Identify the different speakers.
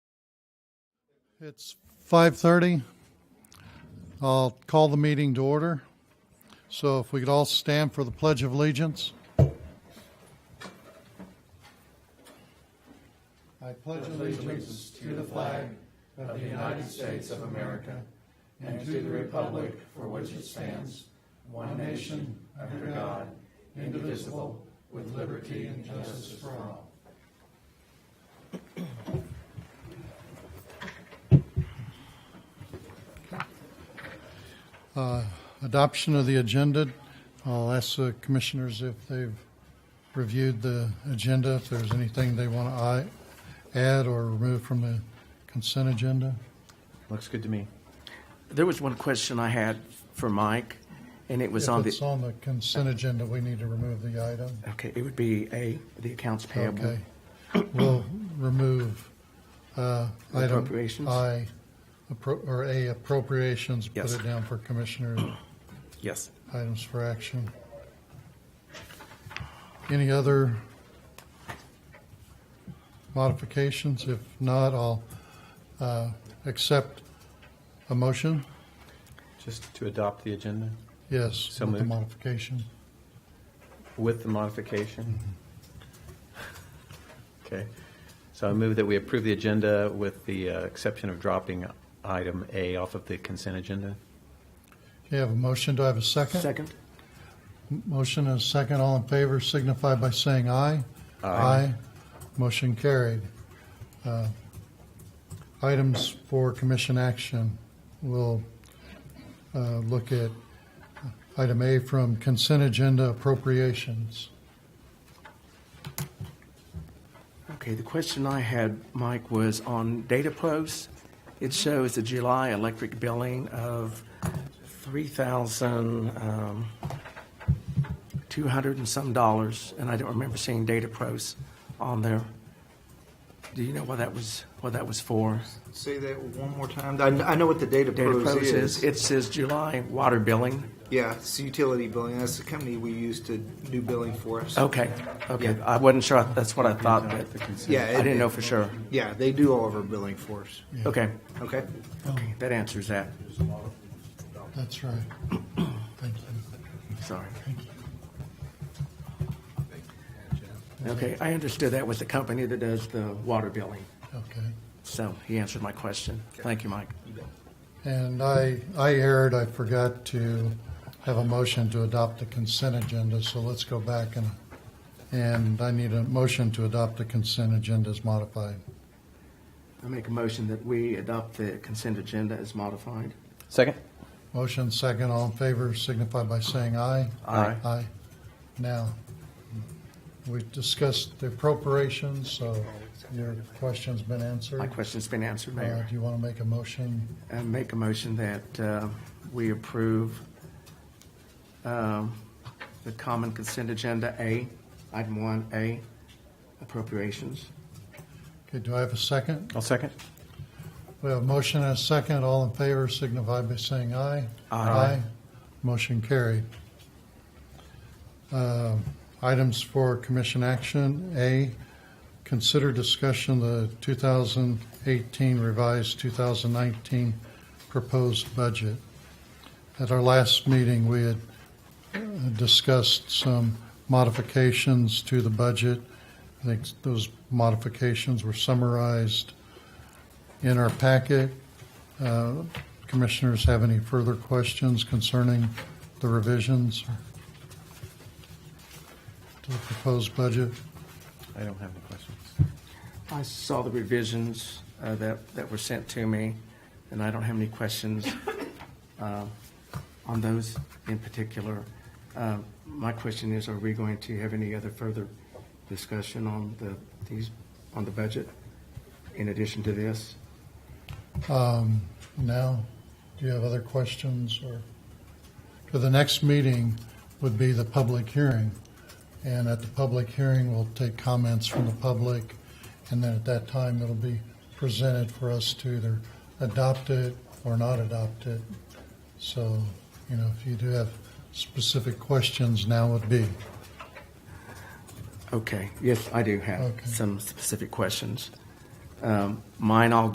Speaker 1: It's 5:30. I'll call the meeting to order. So if we could all stand for the Pledge of Allegiance. I pledge allegiance to the flag
Speaker 2: of the United States of America and to the republic for which it stands, one nation, under God, indivisible, with liberty and justice for all.
Speaker 1: adoption of the agenda. I'll ask the commissioners if they've reviewed the agenda, if there's anything they want to add or remove from the consent agenda.
Speaker 3: Looks good to me.
Speaker 4: There was one question I had for Mike, and it was on
Speaker 1: If it's
Speaker 4: the,
Speaker 1: on the consent agenda, we need to remove the item.
Speaker 4: okay, it would be A, the accounts payable.
Speaker 1: Okay. We'll remove uh, item
Speaker 4: Appropriations?
Speaker 1: I, appro- or A, appropriations.
Speaker 4: Yes.
Speaker 1: Put it down for commissioner
Speaker 4: Yes.
Speaker 1: items for action. Any other modifications? If not, I'll uh, accept a motion.
Speaker 3: Just to adopt the agenda
Speaker 1: Yes,
Speaker 3: So
Speaker 1: with the
Speaker 3: moved.
Speaker 1: modification.
Speaker 3: with the modification. Okay, so I move that we approve the agenda with the uh, exception of dropping item A off of the consent agenda.
Speaker 1: Okay, I have a motion. Do I have a second?
Speaker 4: Second?
Speaker 1: Motion and a second. All in favor signify by saying aye.
Speaker 3: Aye.
Speaker 1: Motion carried. Uh, Items for commission action. We'll uh, look at item A from consent agenda appropriations.
Speaker 4: Okay, the question I had, Mike, was on data posts. It shows the July electric billing of three thousand, um, two hundred and some dollars, and I don't remember seeing data posts on there. Do you know what that was, what that was for?
Speaker 5: Say that one more time. I, I know what the data,
Speaker 4: Data
Speaker 5: pros
Speaker 4: posts
Speaker 5: is.
Speaker 4: is, it says July water billing.
Speaker 5: yeah, it's utility billing. That's the company we use to do billing for us.
Speaker 4: Okay, okay. I wasn't sure. That's what I thought, but
Speaker 5: Yeah,
Speaker 4: I
Speaker 5: it-
Speaker 4: didn't know for sure.
Speaker 5: Yeah, they do all of our billing for us.
Speaker 4: Okay,
Speaker 5: Okay.
Speaker 4: okay, that answers that.
Speaker 1: That's right. Thank you.
Speaker 4: Sorry. Okay, I understood that was the company that does the water billing.
Speaker 1: Okay.
Speaker 4: So he answered my question. Thank you, Mike.
Speaker 1: And I, I erred. I forgot to have a motion to adopt the consent agenda, so let's go back and, and I need a motion to adopt the consent agenda as modified.
Speaker 4: I make a motion that we adopt the consent agenda as modified.
Speaker 3: Second?
Speaker 1: Motion second, all in favor signify by saying aye.
Speaker 4: Aye.
Speaker 1: Aye. Now, we discussed the appropriations, so your question's been
Speaker 4: My
Speaker 1: answered.
Speaker 4: question's been answered,
Speaker 1: Uh,
Speaker 4: Mayor.
Speaker 1: Do you want to make a motion?
Speaker 4: I make a motion that uh, we approve um, the common consent agenda A, item one A, appropriations.
Speaker 1: Okay, do I have a second?
Speaker 3: I'll second.
Speaker 1: We have a motion and a second, all in favor signify by saying aye.
Speaker 4: Aye.
Speaker 1: Motion carried. Uh, Items for commission action, A, consider discussion the 2018 revised 2019 proposed budget. At our last meeting, we had uh, discussed some modifications to the budget. I think those modifications were summarized in our packet. Uh, Commissioners have any further questions concerning the revisions to the proposed budget?
Speaker 3: I don't have any questions.
Speaker 4: I saw the revisions uh, that, that were sent to me, and I don't have any questions uh, on those in particular. Uh, My question is, are we going to have any other further discussion on the, these, on the budget in addition to this?
Speaker 1: Now, do you have other questions or? so The next meeting would be the public hearing. And at the public hearing, we'll take comments from the public. And then at that time, it'll be presented for us to either adopt it or not adopt it. So, you know, if you do have specific questions, now would be.
Speaker 4: Okay, yes, I do have
Speaker 1: Okay.
Speaker 4: some specific questions. Um, Mine all